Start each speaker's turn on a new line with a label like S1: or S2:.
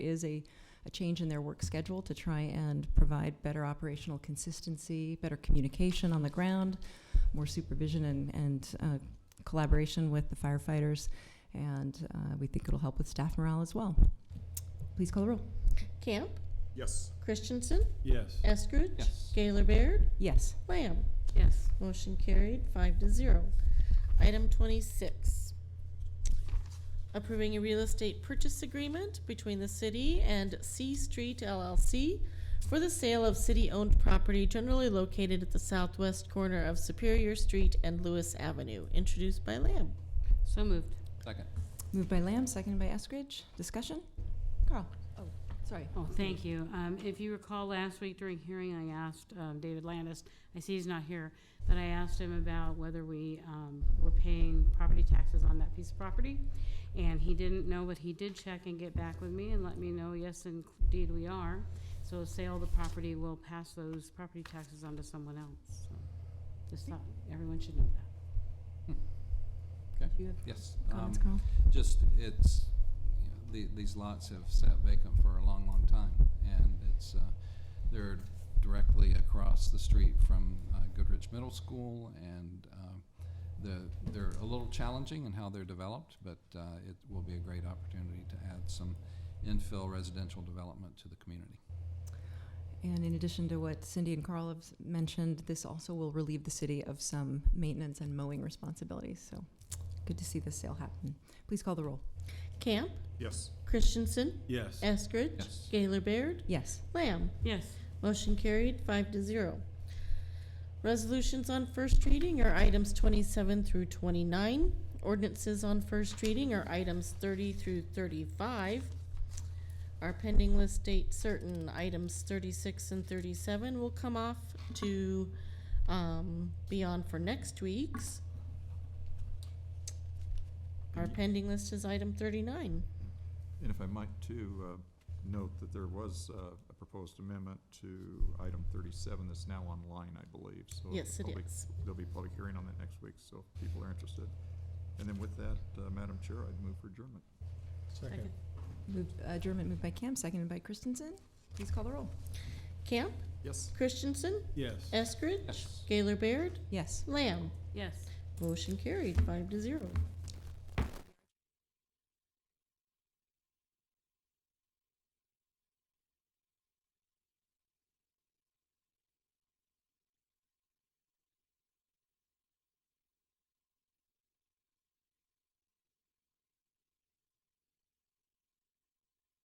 S1: is a, a change in their work schedule to try and provide better operational consistency, better communication on the ground, more supervision and, and uh, collaboration with the firefighters. And uh, we think it'll help with staff morale as well. Please call the roll.
S2: Camp,
S3: Yes.
S2: Christensen,
S3: Yes.
S2: Eskridge.
S3: Yes.
S2: Gaylor Baird,
S1: Yes.
S2: Lamb.
S4: Yes.
S2: Motion carried, five to zero. Item twenty-six, approving a real estate purchase agreement between the city and C Street LLC for the sale of city-owned property generally located at the southwest corner of Superior Street and Lewis Avenue, introduced by Lamb.
S4: So moved.
S3: Second.
S1: Moved by Lamb, seconded by Eskridge. Discussion? Carl? Oh, sorry.
S4: Oh, thank you. Um, If you recall, last week during hearing, I asked um, David Landis, I see he's not here, but I asked him about whether we um, were paying property taxes on that piece of property. And he didn't know, but he did check and get back with me and let me know, yes, indeed, we are. So a sale of the property will pass those property taxes on to someone else. So Just thought, everyone should know that.
S1: Do you have
S5: Yes.
S1: comments,
S5: um,
S1: Carl?
S5: Just, it's, you know, the- these lots have sat vacant for a long, long time, and it's, uh, they're directly across the street from uh, Goodrich Middle School, and um, the, they're a little challenging in how they're developed, but uh, it will be a great opportunity to add some infill residential development to the community.
S1: And in addition to what Cindy and Carl have s- mentioned, this also will relieve the city of some maintenance and mowing responsibilities. So good to see this sale happen. Please call the roll.
S2: Camp,
S3: Yes.
S2: Christensen,
S3: Yes.
S2: Eskridge,
S5: Yes.
S2: Gaylor Baird,
S1: Yes.
S2: Lamb.
S4: Yes.
S2: Motion carried, five to zero. Resolutions on first reading are items twenty-seven through twenty-nine. Ordinances on first reading are items thirty through thirty-five. Our pending list date certain, items thirty-six and thirty-seven will come off to, um, be on for next week's. Our pending list is item thirty-nine.
S6: And if I might too, uh, note that there was uh, a proposed amendment to item 37 that's now online, I believe, so.
S2: Yes, it
S6: there'll be-
S2: is.
S6: There'll be a public hearing on that next week, so if people are interested. And then with that, uh, Madam Chair, I'd move for adjournment.
S4: Second.
S1: Moved, uh, adjournment moved by Camp, seconded by Christensen. Please call the roll.
S2: Camp,
S6: Yes.
S2: Christensen,
S3: Yes.
S2: Eskridge,
S5: Yes.
S2: Gaylor Baird,
S1: Yes.
S2: Lamb.
S4: Yes.
S2: Motion carried, five to zero.